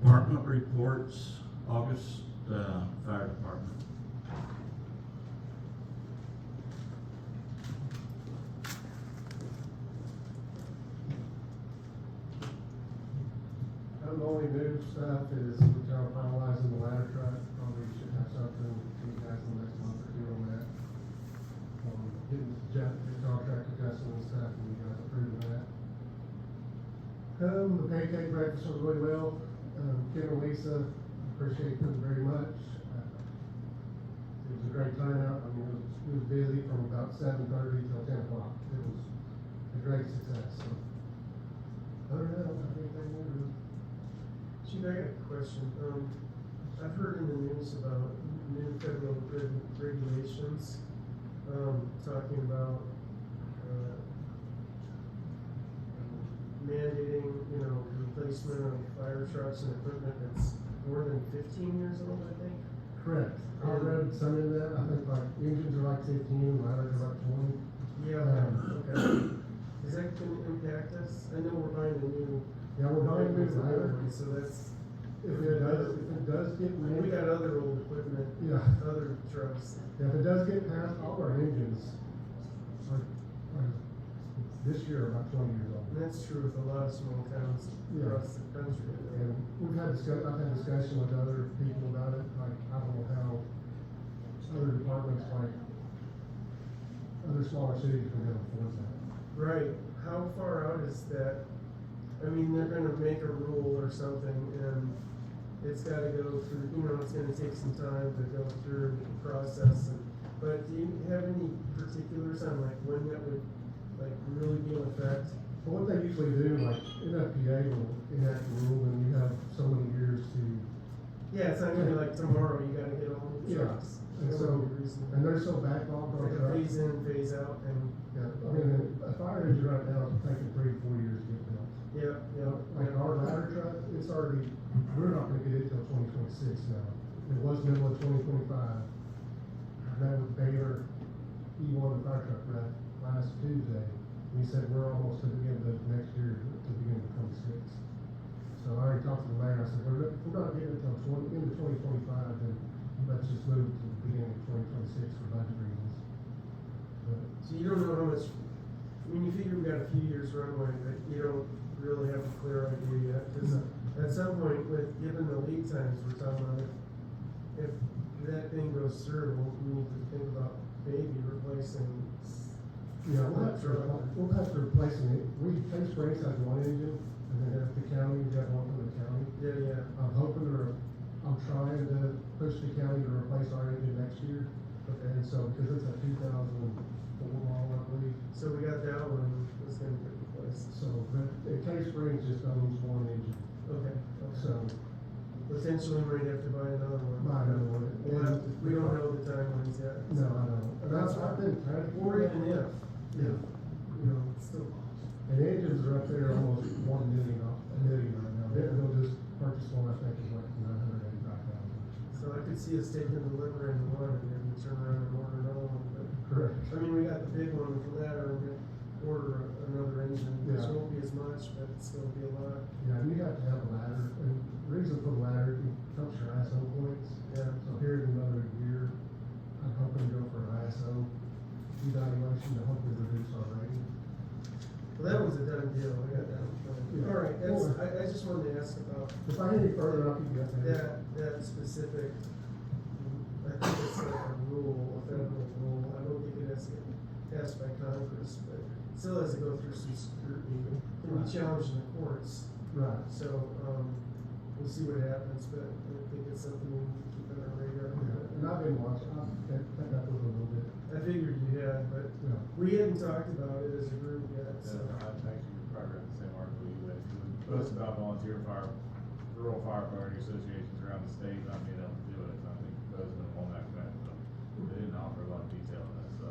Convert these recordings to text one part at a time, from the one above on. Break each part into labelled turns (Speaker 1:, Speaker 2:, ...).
Speaker 1: department reports, August, uh, fire department.
Speaker 2: And The only new stuff is we are finalizing the ladder truck, probably should have something to you guys in the next month or two on that. Um, getting Jeff, the contract adjustment and stuff, and you guys approve of that. Um, the pancake breakfast went really well, um, Ken and Lisa, appreciate them very much. Uh, It was a great time out, I mean, it was, it was busy from about seven thirty till ten o'clock, it was a great success, so. Other than that, I don't have anything new to Gene, I got a question. Um, I've heard in the news about new federal reg- regulations, um, talking about, uh, mandating, you know, replacement of fire trucks and equipment that's more than fifteen years old, I think. Correct. I read some of that. I think like engines are like fifteen, ladders are like twenty.
Speaker 3: Yeah, okay. Is that gonna impact us? I know we're buying a new.
Speaker 2: Yeah, we're buying new
Speaker 3: ladder,
Speaker 2: ladders.
Speaker 3: So that's,
Speaker 2: If it does, if it does get
Speaker 3: we
Speaker 2: mandated,
Speaker 3: got other old equipment,
Speaker 2: yeah.
Speaker 3: other trucks.
Speaker 2: If it does get past all our engines, are, are this year about twenty years old.
Speaker 3: And that's true with a lot of small towns
Speaker 2: Yeah.
Speaker 3: across the country.
Speaker 2: And we've had discuss, I've had discussion with other people about it, like, I don't know how other departments like, other smaller cities can go afford that.
Speaker 3: Right, how far out is that? I mean, they're gonna make a rule or something and it's gotta go through, you know, it's gonna take some time to go through the process and, but do you have any particulars on like when that would, like, really be in effect?
Speaker 2: But what they usually do, like, NFPA will enact a rule and you have so many years to,
Speaker 3: Yeah, it's not gonna be like tomorrow, you gotta get all the
Speaker 2: Yeah,
Speaker 3: trucks.
Speaker 2: and
Speaker 3: That
Speaker 2: so-
Speaker 3: would be reasonable.
Speaker 2: and they're so backlogged
Speaker 3: It's
Speaker 2: on
Speaker 3: like a
Speaker 2: trucks.
Speaker 3: phase in, phase out, and,
Speaker 2: Yeah, I mean, a fire engine right now is taking three, to four years to get built.
Speaker 3: yeah, yeah.
Speaker 2: Like our ladder truck, it's already, we're not gonna get it till twenty twenty-six now. It was middle of twenty twenty-five. That was Baylor, E one fire truck ride last Tuesday. We said we're almost to the end of next year, to the beginning of twenty-six. So I already talked to the mayor, I said, we're, not- if we're not getting it till twenty, end of twenty twenty-five, then let's just move to the beginning of twenty twenty-six for budget reasons. But
Speaker 3: So you don't know how much, I mean, you figure we got a few years runway, but you don't really have a clear idea yet, cause at some point with, given the lead times we're talking about, if, if that thing goes through, we need to think about maybe replacing. s-
Speaker 2: Yeah, we'll have to,
Speaker 3: Sure.
Speaker 2: repl- we'll have to replace it. We, Case Springs has one engine, and then if the county, we got one from the county.
Speaker 3: Yeah, yeah,
Speaker 2: I'm hoping to, I'm trying to push the county to replace our engine next year. And so, because it's a two thousand four model, I believe.
Speaker 3: so we got that one, that's gonna get replaced,
Speaker 2: So, but uh, Case Springs just owns one engine,
Speaker 3: okay, okay.
Speaker 2: so
Speaker 3: Potentially we might have to buy another one.
Speaker 2: buy another one.
Speaker 3: We'll have to-
Speaker 2: And-
Speaker 3: we don't know the timelines yet.
Speaker 2: No, I don't. And that's, I've been trying to.
Speaker 3: Or even if,
Speaker 2: Yeah, you know.
Speaker 3: it's still.
Speaker 2: And engines are up there almost one million, off- a million right now. They're, they'll just purchase one, I think, is like nine hundred eighty-five thousand.
Speaker 3: So I could see us taking the liver and one and then we turn around and order another one, but,
Speaker 2: Correct.
Speaker 3: I mean, we got the big one with the ladder, we're gonna order another engine, which
Speaker 2: Yeah.
Speaker 3: won't be as much, but it's gonna be a lot,
Speaker 2: Yeah, you have to have a ladder, and the reason for the ladder, it helps your ISO points.
Speaker 3: yeah.
Speaker 2: So here in another year, I'm hoping to go for an ISO evaluation to hopefully reduce our rating.
Speaker 3: Well, that was a done deal, I got that one.
Speaker 2: Yeah.
Speaker 3: All right, that's, I, I just wanted to ask about
Speaker 2: If I get any further, I'll keep you updated.
Speaker 3: that, that specific, I think it's like a rule, a federal rule, I don't think it has to get passed by Congress, but it still has to go through some scrutiny, It can be challenged in the courts.
Speaker 2: Right.
Speaker 3: So, um, we'll see what happens, but I think it's something we need to keep on our radar.
Speaker 2: Yeah, And I've been watching, I've kept, kept up with it a little bit.
Speaker 3: I figured you had, but
Speaker 2: Yeah.
Speaker 3: we hadn't talked about it as a group yet, so.
Speaker 4: I actually probably read the same article you read, too. It was about volunteer fire, rural firefighter associations around the state not being able to do it, I think Bozeman and Womack had, but they didn't offer a lot of detail on that, so.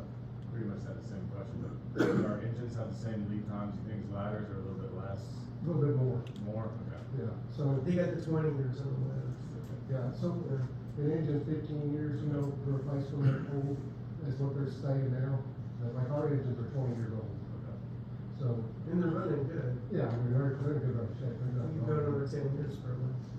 Speaker 4: Pretty much had the same question, but our engines have the same lead times, you think ladders are a little bit less,
Speaker 2: A little bit more,
Speaker 4: more, okay?
Speaker 2: yeah. So,
Speaker 3: They got the twenty years on the list.
Speaker 2: yeah, so uh, an engine fifteen years, you know, to replace when they're old, is what they're saying now. But Like our engines are twenty years old,
Speaker 4: Okay.
Speaker 2: so
Speaker 3: And they're running good.
Speaker 2: Yeah, I mean, they're, they're in good of shape,
Speaker 3: You
Speaker 2: they're
Speaker 3: can
Speaker 2: not.
Speaker 3: go over ten years probably.